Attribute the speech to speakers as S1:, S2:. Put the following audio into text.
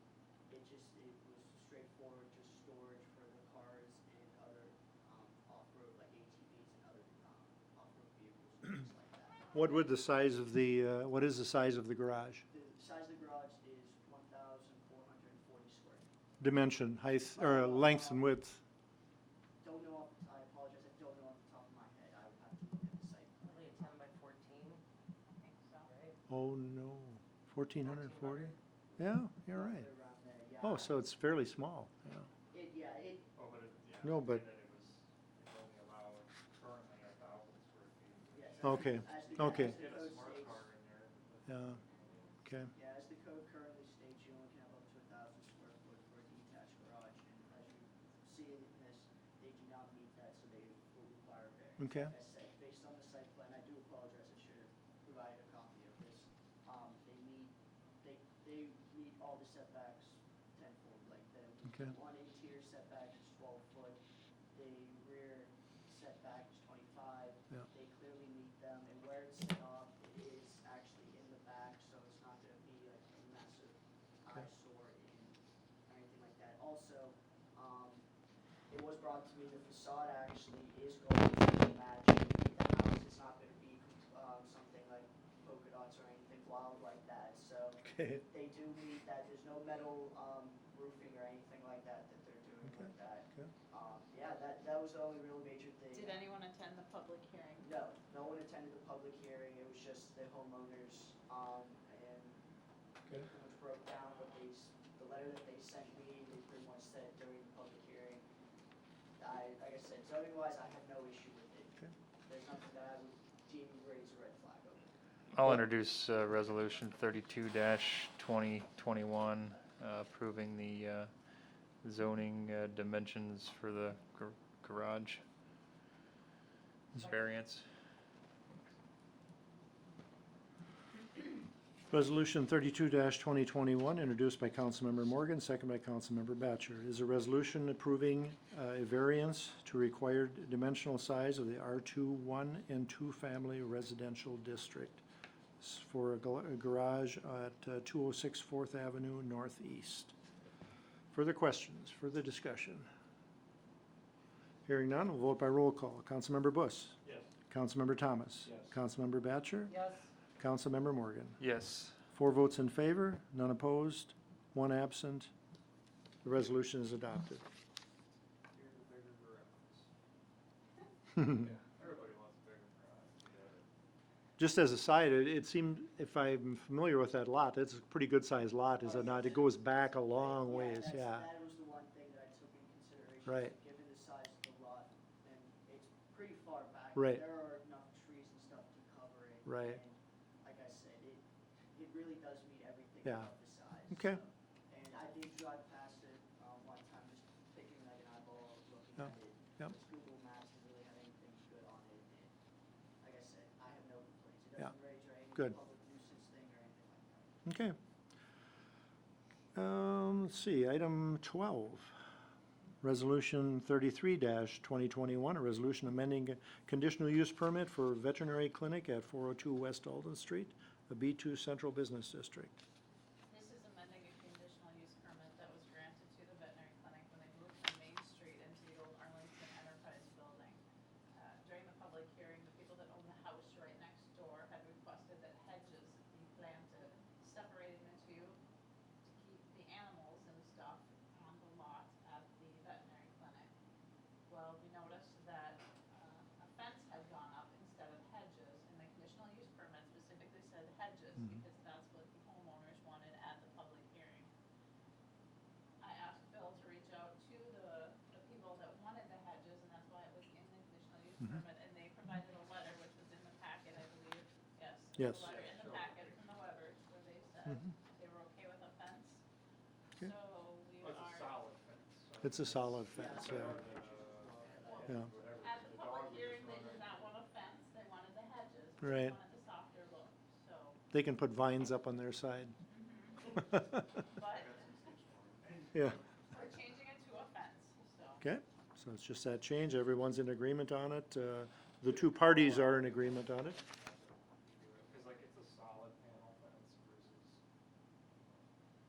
S1: It just, it was straightforward, just storage for the cars and other, um, off-road, like ATVs and other, um, off-road vehicles, things like that.
S2: What would the size of the, uh, what is the size of the garage?
S1: The size of the garage is one thousand four hundred and forty square.
S2: Dimension, height, or length and width?
S1: Don't know off, the- I apologize, I don't know off the top of my head, I would have to look at the site. plan.
S3: Probably a ten by fourteen, right?
S2: Oh, no, fourteen hundred and forty? Yeah, you're right.
S1: Around there, yeah.
S2: Oh, so it's fairly small, yeah.
S1: It, yeah, it,
S4: Oh, but it, yeah.
S2: No, but-
S4: That it was, it only allowed currently a thousand square feet. which-
S1: yes.
S2: Okay,
S1: as the-
S2: okay.
S1: as the
S4: Get a
S1: code
S4: smart
S1: states-
S4: car in there. but-
S2: Yeah, okay.
S1: Yeah, as the code currently states, you only can have up to a thousand square foot for a detached garage, and as you see in this, they do not meet that, so they will require variance.
S2: Okay.
S1: As said, based on the site plan, I do apologize, I should have provided a copy of this, um, they meet, they, they meet all the setbacks tenfold, like the
S2: Okay.
S1: one interior setback is twelve foot, the rear setback is twenty-five,
S2: Yeah.
S1: they clearly meet them, and where it's set off is actually in the back, so it's not gonna be like a massive
S2: Okay.
S1: eyesore in, or anything like that. Also, um, it was brought to me, the facade actually is going to match the house, it's not gonna be, um, something like polka dots or anything wild like that, so
S2: Okay,
S1: they do meet that, there's no metal, um, roofing or anything like that that they're doing
S2: Okay.
S1: with that.
S2: okay.
S1: Um, yeah, that, that was the only real major thing.
S5: Did anyone attend the public hearing?
S1: No, no one attended the public hearing, it was just the homeowners, um, and
S2: Okay.
S1: pretty much broke down what they, s- the letter that they sent me, they pretty much said during the public hearing. I, like I said, zoning wise, I have no issue with it.
S2: Okay.
S1: There's nothing that I would deem raise a red flag over.
S6: I'll introduce uh, Resolution 32-2021, uh, approving the uh, zoning uh, dimensions for the gar- garage variance.
S2: Resolution thirty-two twenty twenty-one, introduced by Councilmember Morgan, second by Councilmember Batchor, is a resolution approving uh, a variance to required dimensional size of the R two one and two family residential district s- for a gal- a garage at two oh six Fourth Avenue Northeast. Further questions, further discussion? Hearing none, we'll vote by roll call. Councilmember Bus?
S4: Yes.
S2: Councilmember Thomas?
S4: Yes.
S2: Councilmember Batchor?
S3: Yes,
S2: Councilmember Morgan?
S6: Yes,
S2: Four votes in favor, none opposed, one absent. The resolution is adopted.
S4: You're the bigger garage.
S2: Mhm.
S4: Yeah, everybody wants a bigger garage. you get it.
S2: Just as a side, it, it seemed, if I'm familiar with that lot, it's a pretty good-sized lot, is it not? It goes back a long
S1: Yeah,
S2: ways,
S1: that's-
S2: yeah.
S1: That was the one thing that I took into consideration. is
S2: Right.
S1: Given the size of the lot, and it's pretty far back.
S2: Right.
S1: There are enough trees and stuff to cover it.
S2: Right.
S1: and Like I said, it, it really does meet everything
S2: Yeah.
S1: about the size.
S2: Okay.
S1: so. And I did drive past it, um, one time, just taking like an eyeball, looking
S2: Yeah,
S1: at it.
S2: yeah.
S1: Just Google Maps didn't really have anything good on it, and like I said, I have no complaints. It
S2: Yeah,
S1: doesn't raise or any
S2: good.
S1: public nuisance thing or anything like that.
S2: Okay. Um, let's see, item twelve. Resolution thirty-three twenty twenty-one, a resolution amending a conditional use permit for veterinary clinic at four oh two West Alden Street, a B two central business district.
S5: this is amending a conditional use permit that was granted to the veterinary clinic when they moved from Main Street into the old Arlington Enterprise Building. Uh, During the public hearing, the people that own the house right next door had requested that hedges be planted, separated into to keep the animals and stuff on the lot at the veterinary clinic. Well, we noticed that uh, a fence had gone up instead of hedges, and the conditional use permit specifically said hedges,
S2: Mhm.
S5: because that's what the homeowners wanted at the public hearing. I asked Bill to reach out to the, the people that wanted the hedges, and that's why it was in the conditional use
S2: Mhm.
S5: permit, and they provided a letter, which was in the packet, I believe, yes.
S2: Yes.
S5: A letter in the packet from the Webbers, where they said
S2: Mhm.
S5: they were okay with a fence.
S2: Okay.
S5: So we
S4: Well, it's
S5: are,
S4: a solid fence. so
S2: It's a
S4: it's
S2: solid
S4: better
S2: fence,
S4: than,
S2: yeah.
S4: uh,
S2: Yeah.
S4: whatever.
S5: at the
S4: The
S5: public
S4: dog would just
S5: hearing,
S4: run
S5: they did
S4: right-
S5: not want a fence, they wanted the hedges.
S2: Right.
S5: They wanted the softer look, so,
S2: They can put vines up on their side.
S5: but
S4: That's a six-foot.
S2: Yeah,
S5: we're changing it to a fence, so.
S2: okay, so it's just that change, everyone's in agreement on it, uh, the two parties are in agreement on it.